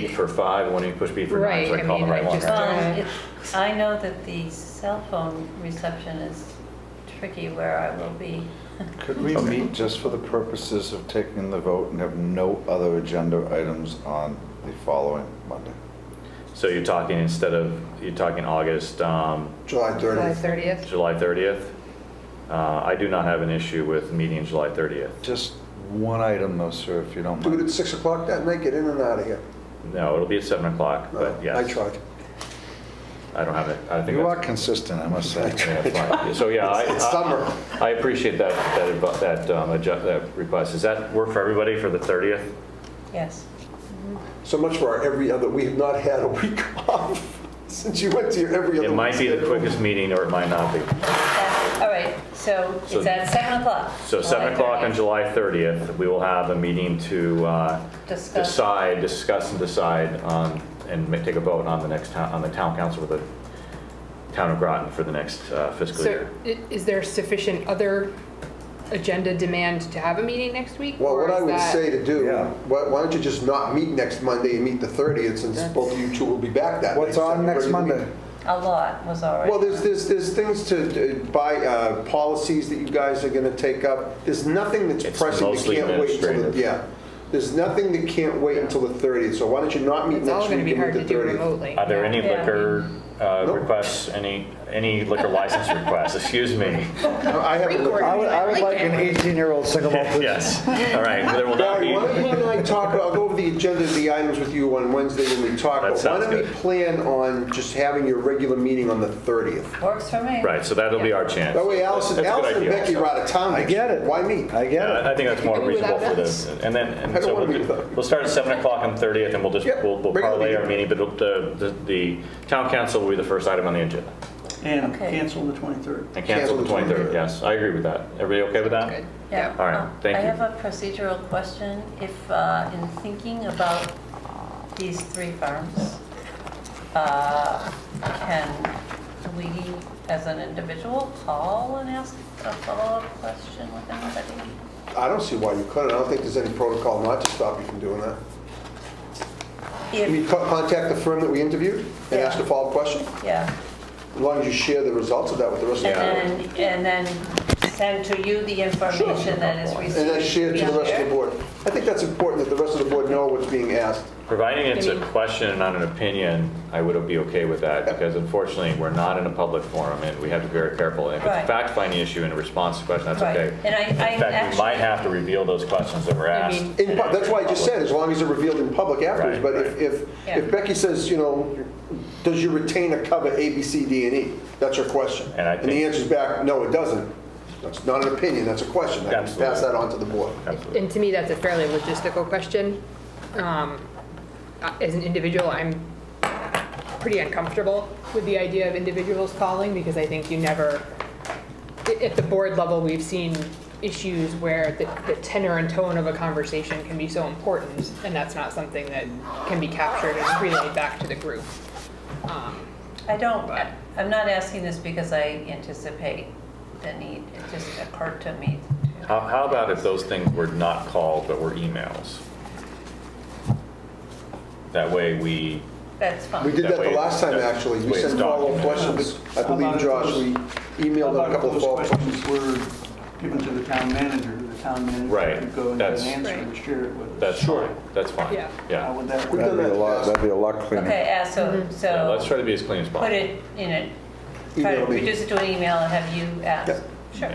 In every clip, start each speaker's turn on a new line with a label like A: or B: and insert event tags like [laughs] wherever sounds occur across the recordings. A: beep for five, one you push beep for nine, so
B: Right,
A: I
B: I
A: call the
B: mean,
A: right
B: I
A: one.
B: just-
A: right?
B: Uh,
C: Well, it- I know that the cell phone reception is tricky where I will be. [laughs]
D: Could we meet just for the purposes of taking the vote and have no other agenda items on the following Monday?
A: So you're talking instead of, you're talking August, um,
E: July
B: July
E: 30th.
B: 30th?
A: July 30th? Uh, I do not have an issue with meeting July 30th.
D: Just one item though, sir, if you don't
E: Do it at
D: mind.
E: 6 o'clock that night, get in and out of here.
A: No, it'll be at 7 o'clock,
E: No,
A: but
E: I
A: yes.
E: tried.
A: I don't have it, I think
D: You are
A: that's.
D: consistent, I must say.
A: that's fine. So, yeah, I,
E: It's summer.
A: I- I appreciate that, that, advi- that, um, adju- that request. Does that work for everybody for the 30th?
C: Yes.
E: So much for our every other, we have not had a [laughs] week off since you went to your every other.
A: It might be the
E: week.
A: quickest meeting or it might not be.
C: All right, so
A: So-
C: it's at 7 o'clock.
A: So 7 o'clock on
C: 30th.
A: July 30th, we will have a meeting to uh,
C: Discuss.
A: decide, discuss and decide on, and ma- take a vote on the next, town on the town council for the town of Groton for the next uh, fiscal
B: So
A: year.
B: i- is there sufficient other agenda demand to have a meeting next week?
E: Well,
B: or
E: what I
B: is
E: would
B: that-
E: say to do,
D: Yeah.
E: why why don't you just not meet next Monday and meet the 30th since both of you two will be back that night.
D: What's on next
E: Ready to meet.
D: Monday?
C: A lot was
E: Well,
C: already.
E: there's, there's, there's things to, uh, buy, uh, policies that you guys are gonna take up. There's nothing that's
A: It's
E: pressing that
A: mostly
E: can't wait until,
A: administrative.
E: the yeah. There's nothing that can't wait until the 30th, so why don't you not meet
B: It's all
E: next
B: going to
E: week
B: be hard
E: and
B: to
E: meet the
B: do
E: 30th?
B: remotely.
A: Are there any
C: Yeah.
A: liquor uh,
E: Nope.
A: requests, any, any liquor license requests? Excuse me.
E: No, I haven't looked-
B: Pre-recorded.
F: I would, I would like an 18-year-old single malt
D: [laughs]
F: please.
A: Yes, all right, there will not
E: Barry,
A: be,
E: why don't you and I talk, I'll go over the agenda of the items with you on Wednesday when we talk.
A: That
E: but Why
A: sounds
E: don't we
A: good.
E: plan on just having your regular meeting on the 30th?
C: Works for me.
A: right, so that'll be our chance.
E: That way Allison,
A: That's a good
E: Allison and
A: idea.
E: Becky are out of town.
F: I
E: next
F: get
E: week.
F: it.
E: Why me?
F: I get
A: Yeah,
F: it.
A: I think that's more
B: Maybe without
A: reasonable for this. And then,
E: I
A: and
E: don't
A: so
E: wanna
A: we'll,
E: be
A: do-
E: without-
A: we'll start at 7 o'clock on 30th, and we'll just,
E: Yep,
A: we'll we'll
E: bring it on
A: parlay our
E: in.
A: meeting, but it'll- the, the- the town council will be the first item on the agenda.
G: And
C: Okay.
G: cancel the 23rd.
A: And cancel the 23rd, yes. I agree with that. Everybody okay with that?
B: Good.
C: Yeah.
A: All right,
C: Um,
A: thank
C: I
A: you.
C: have a procedural question. If, uh, in thinking about these three farms, uh, can we, as an individual, call and ask a follow-up question with anybody?
E: I don't see why you couldn't. I don't think there's any protocol not to stop you from doing that. I mean,
C: If,
E: co- contact the firm that we interviewed and ask a follow-up question,
C: yeah.
E: as long as you share the results of that with the rest of the board.
C: And then, and then send to you the information that is received.
E: And then share it to the rest of the board. I think that's important that the rest of the board know what's being asked.
A: Providing it's
B: I
A: a
B: mean-
A: question and not an opinion, I would be okay with that, because unfortunately, we're not in a public forum, and we have to be very careful. And If it's a
C: Right.
A: fact-finding issue and a response to question, that's
C: Right.
A: okay.
C: And I- I
A: In fact, we
C: actually-
A: might have to reveal those questions that were asked.
B: mean-
E: In pub- That's why I just said, as long as they're revealed in public afterwards.
A: Right,
E: But if, if
C: Yeah.
E: if Becky says, you know, does your retainer cover A, B, C, D, and E? That's her question.
A: And I
E: And the
A: think-
E: answer's back, no, it doesn't. That's not an opinion, that's a question. I can pass
A: Absolutely.
E: that on to the board.
A: Absolutely.
B: And to me, that's a fairly logistical question. Um, I- As an individual, I'm pretty uncomfortable with the idea of individuals calling because I think you never, i- at the board level, we've seen issues where the the tenor and tone of a conversation can be so important, and that's not something that can be captured and relayed back to the group. Um,
C: I don't, I'm not asking this because I anticipate the need. It just occurred to me.
A: How, how about if those things were not called, but were emails? That way we,
C: That's fine.
E: We did
A: That
E: that the
A: way-
E: last time,
A: that
E: actually. You
A: way it's
E: sent follow-up
A: documented.
E: questions. I
G: How
E: believe,
G: about
E: Josh,
G: those-
E: we
G: How
E: emailed
G: about
E: a couple of
G: those
E: follow-up questions.
G: questions were given to the town manager? The town
A: Right,
G: manager could go and get
A: that's-
G: an answer and
B: Right.
G: share it with us.
A: that's
E: Sure.
A: fine, that's fine.
B: Yeah.
G: How
A: Yeah.
G: would that
E: We've
G: work?
E: done
D: That'd be a lot, that'd be a lot
C: Okay,
D: cleaner.
C: yeah, so,
A: Yeah, Let's try
C: so
A: to be as clean as
C: put
A: possible.
C: it in a, try to
E: Email me.
C: reduce it to an email and have you ask.
E: Yep.
C: Sure.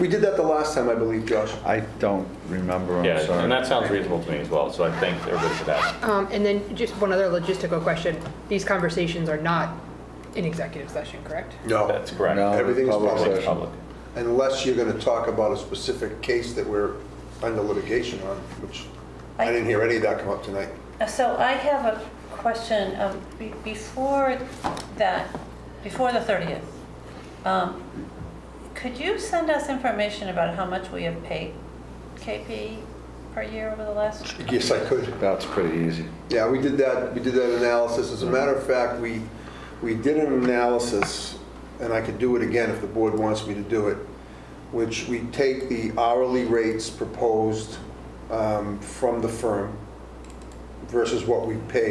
E: We did that the last time, I believe, Josh.
D: I don't remember, I'm
A: Yeah, and
D: sorry.
A: that sounds reasonable to me as well, so I thank everybody for that.
B: Um, And then just one other logistical question. These conversations are not in executive session, correct?
E: No,
A: That's correct.
D: No,
E: Everything's
D: public
E: public.
D: session.
A: Public.
E: unless you're going to talk about a specific case that we're under litigation on, which I
C: I-
E: didn't hear any of that come up tonight.
C: Uh, So I have a question, um, be- before that, before the 30th, um, could you send us information about how much we have paid KP per year over the last?
E: Yes, I could.
D: That's pretty easy.
E: Yeah, we did that, we did that analysis. As a matter of fact, we, we did an analysis, and I could do it again if the board wants me to do it, which we take the hourly rates proposed um, from the firm versus what we paid.